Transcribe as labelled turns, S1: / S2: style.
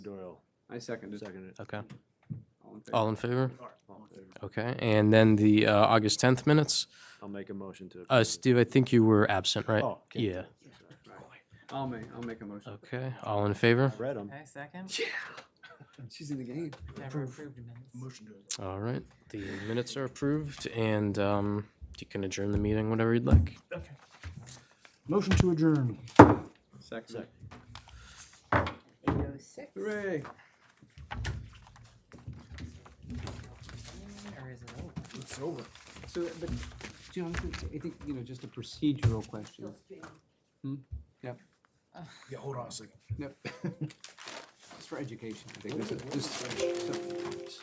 S1: I seconded.
S2: Seconded.
S3: Okay.
S1: All in favor?
S3: All in favor?
S2: All in favor.
S3: Okay. And then the uh, August 10th minutes.
S2: I'll make a motion to.
S3: Uh,
S2: approve.
S3: Steve, I think you were absent, right?
S2: Oh, okay.
S3: Yeah.
S1: I'll make, I'll make a motion.
S3: Okay. All in favor?
S2: Read 'em.
S4: Okay, second.
S1: She's in the game.
S4: Never approved minutes.
S3: All right. The minutes are approved and um, you can adjourn the meeting whenever you'd like.
S5: Motion to adjourn.
S1: Second.
S6: Eight oh six.
S1: Hooray.
S4: Or is it over?
S5: It's over.
S1: So, but, John, I think- I think, you know, just a procedural question.
S5: Yeah, hold on a second.
S1: Yep. It's for education, I think. This is- this-